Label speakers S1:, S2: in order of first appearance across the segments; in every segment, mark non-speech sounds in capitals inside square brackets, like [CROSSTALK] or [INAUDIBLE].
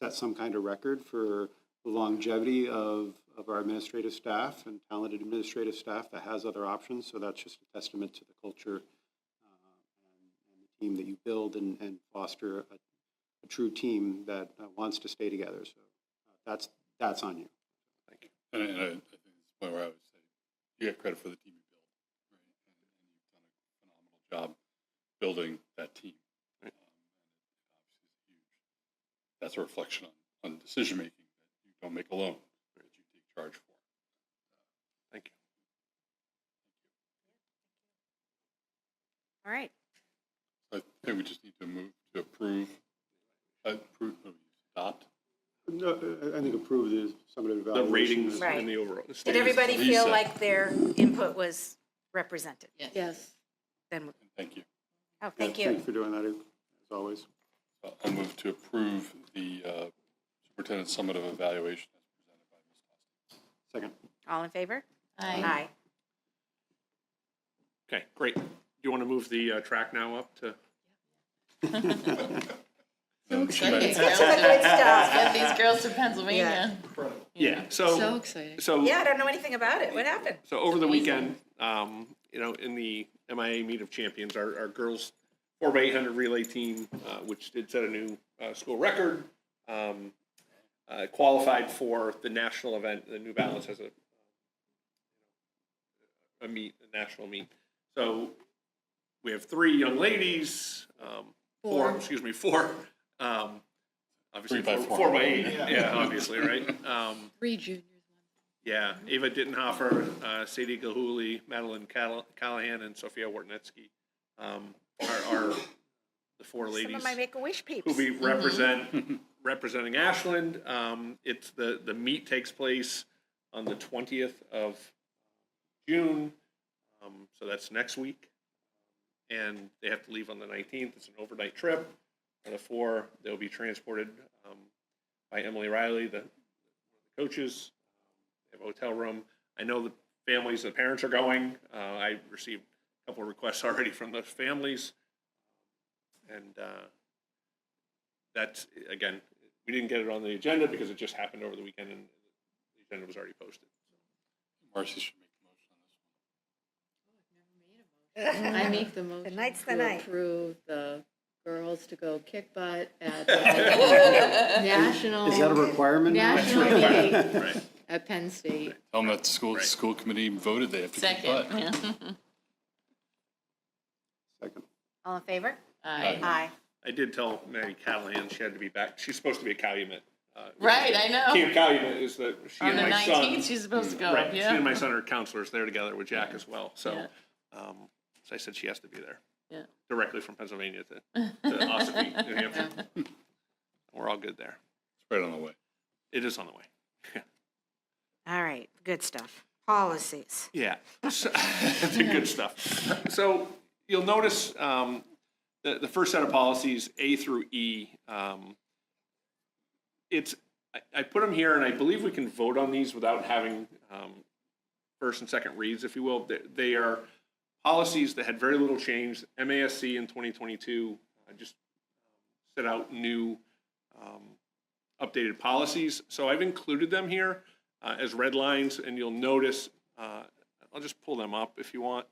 S1: uh, set some kind of record for the longevity of, of our administrative staff and talented administrative staff that has other options. So that's just a testament to the culture uh, and and the team that you build and, and foster a, a true team that uh, wants to stay together. So uh, that's, that's on you.
S2: And I, and I, I think this is the point where I would say, you get credit for the team you build, right? And, and you've done a phenomenal job building that team.
S3: Right.
S2: Um, and it, it obviously is huge. That's a reflection on, on decision making that you don't make alone, that you take charge for.
S3: Thank you.
S4: All right.
S2: So I think we just need to move to approve, uh, approve, no, adopt.
S1: No, I- I think approve the summative
S3: The
S1: evaluation.
S3: ratings
S4: Right.
S3: and the overall.
S4: Did
S2: Yes,
S4: everybody feel
S2: Lisa.
S4: like their input was represented?
S5: Yes.
S4: Then,
S2: And thank you.
S4: oh, thank
S1: Thank
S4: you.
S1: you for doing that, as always.
S2: Uh, I'll move to approve the uh, superintendent summative evaluation as presented by Ms. Austin.
S1: Second.
S4: All in favor? Aye.
S3: Okay, great. Do you want to move the uh, track now up to?
S2: Um,
S5: So exciting.
S4: That's all the good stuff.
S5: Get these girls to Pennsylvania.
S3: Yeah,
S5: So
S3: so,
S5: exciting.
S3: so,
S4: Yeah, I don't know anything about it. What happened?
S3: so over the weekend, um, you know, in the MIA Meet of Champions, our, our girls four by eight hundred relay team, uh, which did set a new, uh, school record, um, uh, qualified for the national event, the New Balance has a a meet, a national meet. So we have three young ladies, um, four,
S5: Four.
S3: excuse me, four, um, obviously
S2: Three by
S3: four,
S2: four.
S3: four by eight, yeah, obviously, right? Um,
S5: Three juniors.
S3: yeah, Ava Dittenhofer, uh, Sadie Gahuli, Madeline Call- Callahan, and Sophia Wartnetsky um, are, are the four
S4: Some
S3: ladies
S4: of my make-a-wish
S3: who
S4: peeps.
S3: we represent [LAUGHS] representing Ashland. Um, it's the the meet takes place on the twentieth of June, um, so that's next week, and they have to leave on the nineteenth. It's an overnight trip. And the four they'll be transported um, by Emily Riley, the coaches. They have a hotel room. I know the families, the parents are going. Uh, I received a couple of requests [LAUGHS] already from those families, and uh, that's again, we didn't get it on the agenda because it just happened over the weekend and the agenda was already posted.
S2: Marcy should make the motion on this one.
S5: I make the
S4: Mm-hmm. The
S5: motion
S4: night's the
S5: to
S4: night.
S5: approve the girls to go kick butt
S4: [LAUGHS]
S5: at the national.
S1: Is that a requirement? now?
S5: National meet
S3: Right.
S5: at Penn State.
S2: Tell them that the school,
S3: Right.
S2: school committee voted they have to keep
S6: Second,
S2: butt.
S1: [LAUGHS]
S5: [LAUGHS]
S1: Second.
S4: All in favor?
S6: Aye.
S4: Aye.
S3: I did tell Mary Callahan she had to be back. She's supposed to be a Calumet. Uh,
S6: Right, I know.
S3: Camp Calumet is the she
S6: On
S3: and
S6: the
S3: my son.
S6: nineteenth, she's supposed to go,
S3: right. She and
S6: yeah.
S3: my son are counselors. They're together with Jack as well. So,
S6: Yeah.
S3: um, so I said she has to be there.
S6: Yeah.
S3: Directly from Pennsylvania to,
S6: [LAUGHS]
S3: to Ossipee, New Hampshire. We're all good there.
S2: It's right on the way.
S3: It is on the way.
S4: All right, good stuff. Policies.
S3: Yeah, So- [LAUGHS] the good stuff. So you'll notice um, the, the first set of policies, A through E, um, it's, I, I put them here and I believe we can vote on these without having um, first and second reads, if you will. They, they are policies that had very little change. MASC in 2022 uh, just set out new um, updated policies. So I've included them here uh, as red lines, and you'll notice, uh, I'll just pull them up if you want.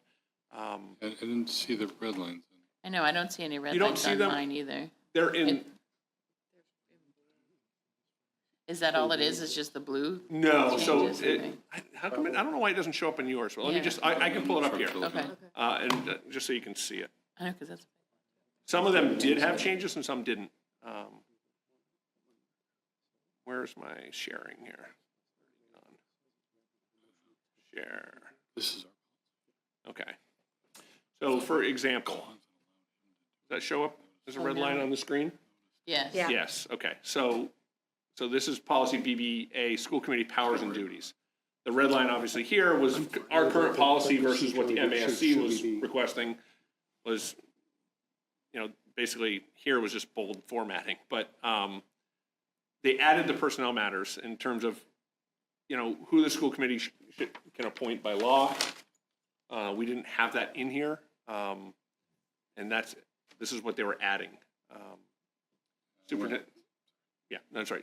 S3: Um,
S2: I, I didn't see the red lines.
S6: I know, I don't see any red
S3: You don't
S6: lights
S3: see
S6: on
S3: them?
S6: mine either.
S3: They're in,
S6: Is that all it is? It's just the blue?
S3: no, so,
S6: Changes,
S3: it-
S6: okay.
S3: I- how come, it- I don't know why it doesn't show up on yours, but let me
S6: Yeah.
S3: just, I, I can pull it up here.
S6: Okay.
S3: Uh, and, uh, just so you can see it.
S6: I know, because that's,
S3: Some of them did have changes and some didn't. Um, Where's my sharing here? Share,
S2: This is
S3: okay. So for example, does that show up as a red line on the screen?
S6: yes.
S4: Yeah.
S3: Yes, okay, so, so this is policy BBA, school committee powers and duties. The red line obviously here was our current policy versus what the MASC was requesting was, you know, basically here was just bold formatting, but, um, they added the personnel matters in terms of, you know, who the school committee sh- sh- can appoint by law. Uh, we didn't have that in here, um, and that's, this is what they were adding. Um, Superintendent, yeah, that's right.